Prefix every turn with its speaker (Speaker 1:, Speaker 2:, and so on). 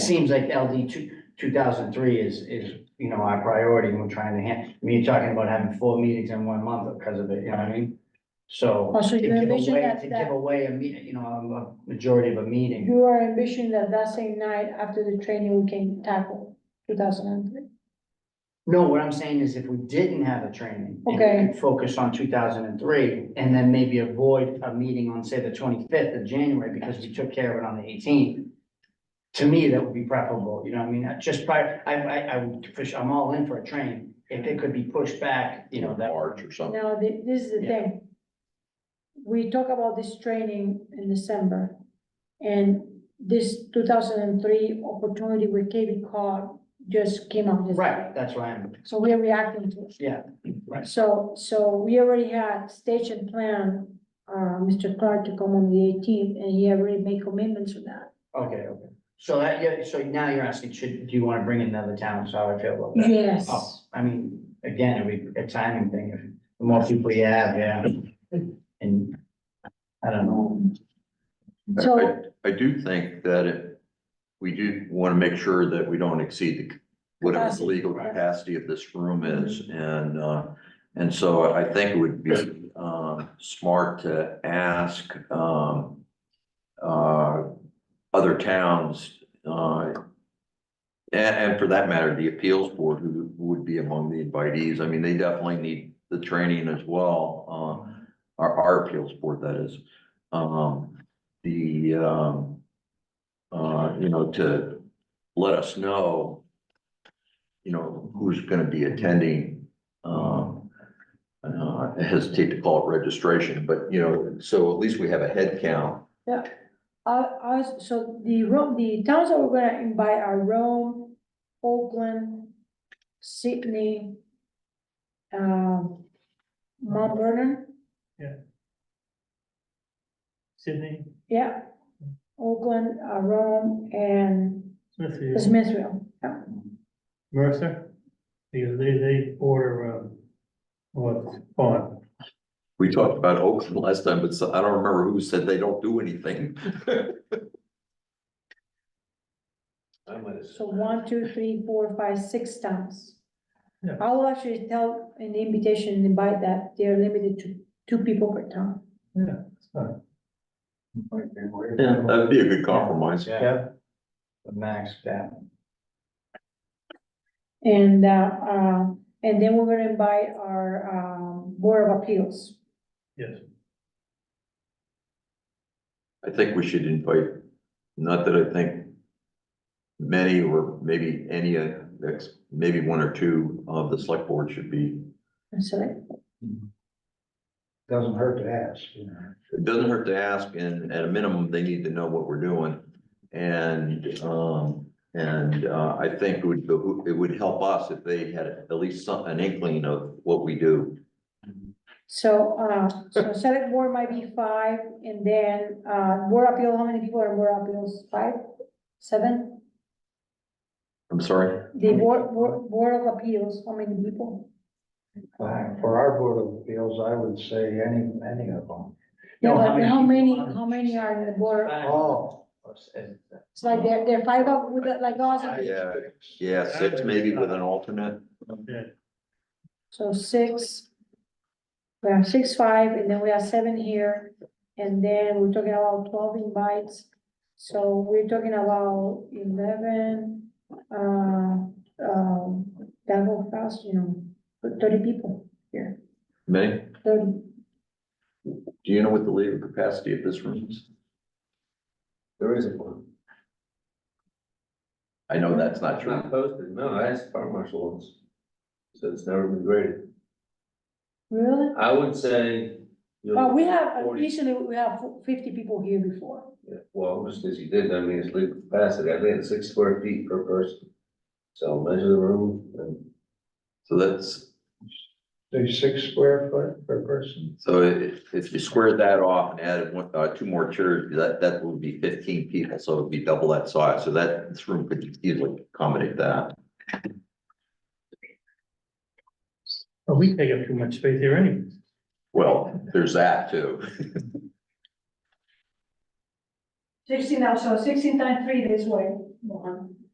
Speaker 1: seems like LD two, two thousand three is, is, you know, our priority when trying to hand, I mean, you're talking about having four meetings in one month because of it, you know what I mean? So.
Speaker 2: Also,
Speaker 1: to
Speaker 2: you
Speaker 1: give
Speaker 2: envision
Speaker 1: away-
Speaker 2: that,
Speaker 1: To
Speaker 2: that,
Speaker 1: give away a meeting, you know, a- a majority of a meeting,
Speaker 2: you are envisioning that that same night after the training, we can tackle two thousand and three.
Speaker 1: no, what I'm saying is if we didn't have a training. and
Speaker 2: Okay.
Speaker 1: could Focus on two thousand and three, and then maybe avoid a meeting on, say, the twenty-fifth of January, because we took care of it on the eighteenth. To me, that would be preferable, you know, what I mean, I just prior, I, I, I would push, I'm all in for a train, if it could be pushed back, you know, that.
Speaker 3: March or something.
Speaker 2: Now, thi- this is the
Speaker 1: Yeah.
Speaker 2: thing. We talk about this training in December, and this two thousand and three opportunity with KB card just came up. this-
Speaker 1: Right, that's why I'm,
Speaker 2: So we are reacting to it.
Speaker 1: yeah, right.
Speaker 2: So, so we already had stage and plan, uh, Mr. Clark to come on the eighteenth, and he already made commitments to that.
Speaker 1: Okay, okay. So that, yeah, so now you're asking, should, do you want to bring in another town? So how I feel about that?
Speaker 2: Yes.
Speaker 1: Oh, I mean, again, it'd be a timing thing. If The more people you have, yeah. And I don't know.
Speaker 2: Um,
Speaker 3: I-
Speaker 2: So-
Speaker 3: I I do think that it, we do want to make sure that we don't exceed the, whatever the
Speaker 2: Capacity.
Speaker 3: legal
Speaker 1: Right.
Speaker 3: capacity of this room is, and, uh, and so I think it would be, um, smart to ask, um, uh, other towns, uh, and, and for that matter, the appeals board, who would be among the invitees, I mean, they definitely need the training as well, uh, our, our appeals board, that is. Um, the, um, uh, you know, to let us know, you know, who's gonna be attending, um, uh, I hesitate to call it registration, but, you know, so at least we have a head count.
Speaker 2: Uh, us- so the Rome, the towns that we're gonna invite are Rome, Oakland, Sydney, um, Mount Vernon,
Speaker 4: Sydney,
Speaker 2: yeah. Oakland, uh, Rome, and
Speaker 4: Smithfield,
Speaker 2: Smithville, yeah.
Speaker 4: Mercer, because they, they order, um, what, font.
Speaker 3: We talked about Oakland last time, but so- I don't remember who said they don't do anything.
Speaker 5: I might have.
Speaker 2: So one, two, three, four, five, six towns.
Speaker 4: Yeah.
Speaker 2: I'll actually tell an invitation and invite that they're limited to two people per town.
Speaker 4: yeah, it's fine.
Speaker 3: That'd be a good compromise.
Speaker 1: Yeah, the max, yeah.
Speaker 2: And, uh, uh, and then we're gonna invite our, um, Board of Appeals.
Speaker 4: Yes,
Speaker 3: I think we should invite, not that I think many or maybe any, uh, ex- maybe one or two of the select board should be,
Speaker 2: And so, like,
Speaker 5: Doesn't hurt to ask, you know.
Speaker 3: it doesn't hurt to ask, and at a minimum, they need to know what we're doing. And, um, and, uh, I think it would, behoo- it would help us if they had at least some, an inkling of what we do.
Speaker 2: so, uh, so select board might be five, and then, uh, Board of Appeal, how many people are in Board of Appeals? Five? Seven?
Speaker 3: I'm sorry,
Speaker 2: The Board, Board, Board of Appeals, how many people?
Speaker 5: Uh, For our board of appeals, I would say any, any of them.
Speaker 1: No,
Speaker 2: Yeah,
Speaker 1: how
Speaker 2: but
Speaker 1: many
Speaker 2: how
Speaker 1: people
Speaker 2: many,
Speaker 1: are-
Speaker 2: how many are in the Board?
Speaker 5: Oh.
Speaker 2: It's like they're, they're five up with, it, like us,
Speaker 3: Yeah. yeah, six maybe with an alternate.
Speaker 4: yeah,
Speaker 2: so six. We have six, five, and then we have seven here. And then we're talking about twelve invites, so we're talking about eleven, uh, um, that whole class, you know, thirty people,
Speaker 3: Many,
Speaker 2: thirty.
Speaker 3: do you know what the legal capacity of this room is?
Speaker 6: There isn't one.
Speaker 3: I know that's not
Speaker 6: It's
Speaker 3: true.
Speaker 6: not posted, no, I asked fire marshal once. So it's never been graded.
Speaker 2: Really?
Speaker 6: I would say. you'll-
Speaker 2: Well, we have, uh,
Speaker 6: Forty.
Speaker 2: usually we have fifty people here before.
Speaker 6: Yeah, Well, just as you did, I mean, it's legal capacity, I think it's six square feet per person. So measure the room and.
Speaker 3: So that's,
Speaker 5: There's six square foot per person.
Speaker 3: so if, if you squared that off and added one, uh, two more chairs, that, that would be fifteen people, so it'd be double that size, so that, this room could easily accommodate that.
Speaker 4: but we take up too much space here anyway.
Speaker 3: Well, there's that too.
Speaker 2: Sixteen, now, so sixteen times three this way, one.